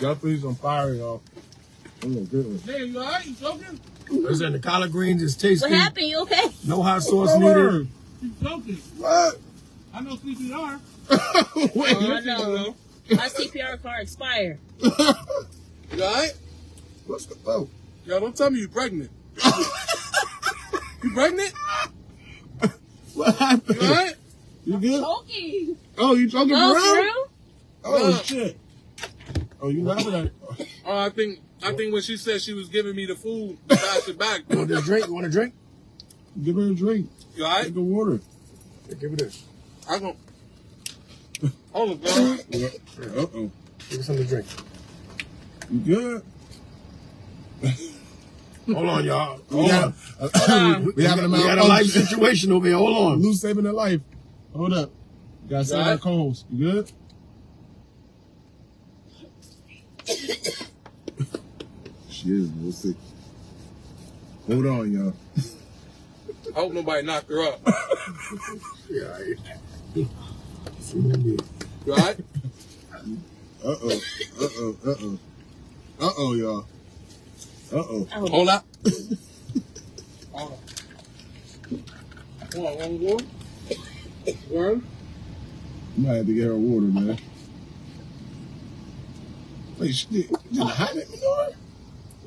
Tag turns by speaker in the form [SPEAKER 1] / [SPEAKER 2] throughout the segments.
[SPEAKER 1] Y'all threw some fire, y'all. That was a good one.
[SPEAKER 2] Damn, you alright? You choking?
[SPEAKER 3] Listen, the collard greens is tasty.
[SPEAKER 4] What happened? You okay?
[SPEAKER 3] No hot sauce needed.
[SPEAKER 2] You choking.
[SPEAKER 1] What?
[SPEAKER 2] I know CPR.
[SPEAKER 1] Wait,
[SPEAKER 4] Oh,
[SPEAKER 1] you think
[SPEAKER 4] no. My CPR card expired.
[SPEAKER 2] You alright?
[SPEAKER 1] What's the oh?
[SPEAKER 2] Yo, don't tell me you pregnant. you pregnant?
[SPEAKER 1] What happened?
[SPEAKER 2] You alright?
[SPEAKER 1] You good?
[SPEAKER 4] Choking.
[SPEAKER 1] Oh, you choking
[SPEAKER 4] Oh,
[SPEAKER 1] for
[SPEAKER 4] for
[SPEAKER 1] real?
[SPEAKER 4] real?
[SPEAKER 1] Oh
[SPEAKER 2] Nah.
[SPEAKER 1] shit. Oh, you laughing at it?
[SPEAKER 2] Oh, I think I think when she said she was giving me the food, I passed it back.
[SPEAKER 3] You want a drink? You want a drink?
[SPEAKER 1] Give her a drink.
[SPEAKER 2] You alright?
[SPEAKER 1] Drink the water.
[SPEAKER 3] Here, give me this.
[SPEAKER 2] I gon' Hold up, girl.
[SPEAKER 1] Yeah. Uh oh.
[SPEAKER 3] Give me something to drink.
[SPEAKER 1] You good?
[SPEAKER 3] Hold on, y'all.
[SPEAKER 1] We
[SPEAKER 3] Hold on.
[SPEAKER 1] got-
[SPEAKER 4] on.
[SPEAKER 1] we having a
[SPEAKER 3] We got a
[SPEAKER 1] malfunction.
[SPEAKER 3] life situation over here. Hold on.
[SPEAKER 1] Lou's saving a life. Hold up. You gotta save our
[SPEAKER 2] Alright.
[SPEAKER 1] co-host. You good? she is real sick. Hold on, y'all.
[SPEAKER 2] I hope nobody knocked her up.
[SPEAKER 3] Yeah, all right. See what I did.
[SPEAKER 2] You alright?
[SPEAKER 1] Uh oh. Uh oh. Uh oh. Uh oh, y'all. Uh oh.
[SPEAKER 4] Oh,
[SPEAKER 2] Hold up. Hold up. What, one more? One?
[SPEAKER 1] You might have to get her water, man. Wait, she did, she did a hot dog?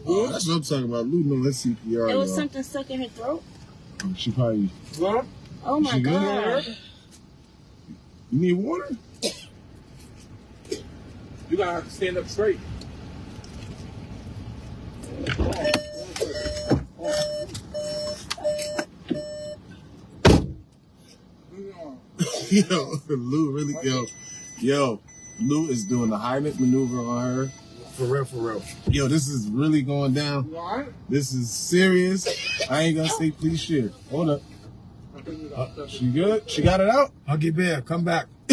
[SPEAKER 1] Oh, that's what I'm talking about. Lou, no, that's CPR.
[SPEAKER 4] there was
[SPEAKER 1] y'all. Oh,
[SPEAKER 4] something stuck in her throat.
[SPEAKER 1] She probably.
[SPEAKER 2] One?
[SPEAKER 4] Oh my
[SPEAKER 1] She good?
[SPEAKER 4] god.
[SPEAKER 1] You need water?
[SPEAKER 2] You gotta have to stand up straight.
[SPEAKER 1] yo, Lou really, yo, yo, Lou is doing the Heimlich maneuver on her.
[SPEAKER 3] For real, for real.
[SPEAKER 1] Yo, this is really going down.
[SPEAKER 2] You alright?
[SPEAKER 1] This is serious. I ain't gonna say please share. Hold up.
[SPEAKER 2] I think we got stuff.
[SPEAKER 1] She good? She got it out?
[SPEAKER 3] Huggy Bear, come back.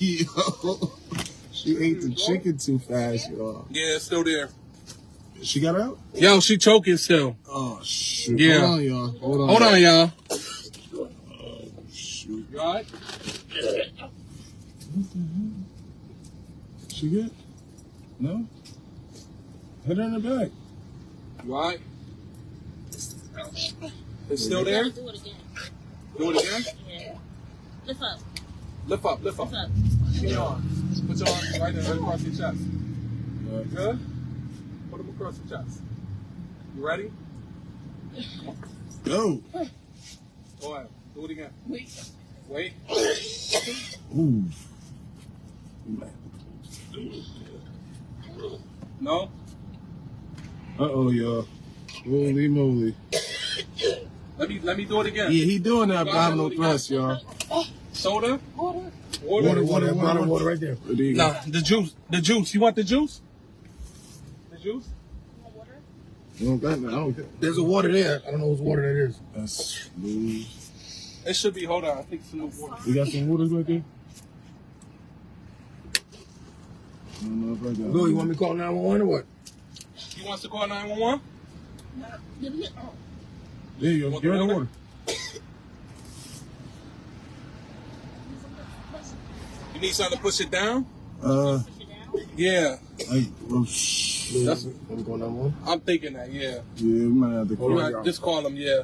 [SPEAKER 1] yo, she ate the chicken too fast, y'all.
[SPEAKER 2] Yeah, it's still there.
[SPEAKER 1] She got it out?
[SPEAKER 2] Yo, she choking still.
[SPEAKER 1] Oh, shoot.
[SPEAKER 2] Yeah.
[SPEAKER 1] Hold on, y'all. Hold on.
[SPEAKER 2] Hold on, y'all.
[SPEAKER 1] Shoot.
[SPEAKER 2] You alright?
[SPEAKER 1] She good? No? Hit her in the back.
[SPEAKER 2] You alright? It's still there?
[SPEAKER 4] Do it again.
[SPEAKER 2] Do it again?
[SPEAKER 4] Yeah. Lift up.
[SPEAKER 2] Lift up, lift up.
[SPEAKER 4] Lift up.
[SPEAKER 2] Give me your arms. Put your arms right there, right across your chest.
[SPEAKER 1] Uh,
[SPEAKER 2] Good? Put them across your chest. You ready?
[SPEAKER 1] go.
[SPEAKER 2] Go ahead. Do it again.
[SPEAKER 4] Wait.
[SPEAKER 2] Wait.
[SPEAKER 1] Ooh.
[SPEAKER 2] No?
[SPEAKER 1] Uh oh, y'all. Holy moly.
[SPEAKER 2] Let me let me do it again.
[SPEAKER 1] Yeah, he doing that abdominal thrust, y'all.
[SPEAKER 2] Soda?
[SPEAKER 4] Water.
[SPEAKER 2] Water?
[SPEAKER 3] Water, water, water, water right there.
[SPEAKER 1] There you go.
[SPEAKER 2] Nah, the juice. The juice. You want the juice? The juice?
[SPEAKER 4] Water.
[SPEAKER 1] You don't got nothing. I don't get
[SPEAKER 3] There's a water there. I don't know whose water that is.
[SPEAKER 1] That's Lou.
[SPEAKER 2] It should be. Hold on. I think some more water.
[SPEAKER 1] You got some water right there? I don't know if I got
[SPEAKER 3] Lou, you want me to call 911 or what?
[SPEAKER 2] You want to call 911?
[SPEAKER 4] Give me- oh,
[SPEAKER 1] There you go.
[SPEAKER 2] Want
[SPEAKER 1] Give her the
[SPEAKER 2] the
[SPEAKER 1] water.
[SPEAKER 2] water? You need something to push it down?
[SPEAKER 1] Uh,
[SPEAKER 4] push it down.
[SPEAKER 2] Yeah.
[SPEAKER 1] I, well, shh.
[SPEAKER 3] Lou,
[SPEAKER 2] That's-
[SPEAKER 3] you want me to call 911?
[SPEAKER 2] I'm thinking that, yeah.
[SPEAKER 1] Yeah, we might have to
[SPEAKER 2] You
[SPEAKER 3] Hold on,
[SPEAKER 1] call.
[SPEAKER 2] might-
[SPEAKER 3] y'all.
[SPEAKER 2] just call them, yeah.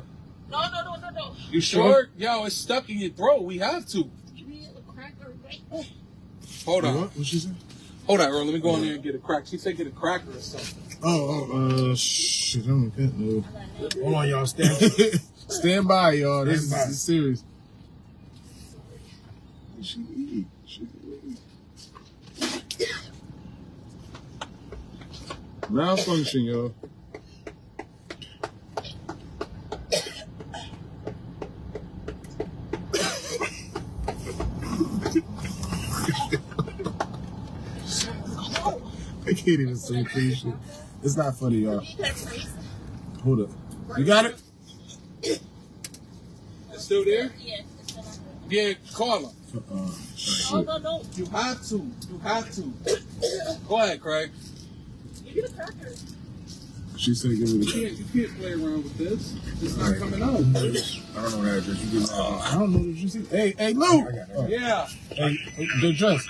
[SPEAKER 4] No, no, no, no, no.
[SPEAKER 2] You sure? Yo, it's stuck in your throat. We have to.
[SPEAKER 4] Give me a cracker. Right. Oh,
[SPEAKER 2] Hold on.
[SPEAKER 3] Uh-huh.
[SPEAKER 1] What? What she said?
[SPEAKER 2] Hold on, Earl. Let me go in there and get a crack. She said get a cracker or something.
[SPEAKER 1] Oh, oh, uh, shit. I don't get no.
[SPEAKER 4] I got it.
[SPEAKER 3] Hold on, y'all. Stand.
[SPEAKER 1] Stand by, y'all. This is,
[SPEAKER 3] Stand by.
[SPEAKER 1] this is serious. She eat. She eat. Malfunction, y'all. I can't even say please. shit. It's not funny, y'all.
[SPEAKER 4] You got it, please.
[SPEAKER 1] Hold up. You got it?
[SPEAKER 2] It's still there?
[SPEAKER 4] Yeah, it's still on there.
[SPEAKER 2] Yeah, call them.
[SPEAKER 1] Uh,
[SPEAKER 4] No,
[SPEAKER 1] shit.
[SPEAKER 4] no, no.
[SPEAKER 2] You have to. You have to. Go ahead, Craig.
[SPEAKER 4] Give me the cracker.
[SPEAKER 1] She said give me
[SPEAKER 2] You
[SPEAKER 1] the
[SPEAKER 2] can't, you can't play around with this. It's
[SPEAKER 1] All
[SPEAKER 2] not
[SPEAKER 1] right.
[SPEAKER 2] coming out.
[SPEAKER 3] I don't know that address. You give me
[SPEAKER 1] I don't know what you see. Hey, hey, Lou!
[SPEAKER 3] I got it.
[SPEAKER 2] Yeah.
[SPEAKER 1] Hey, the dress.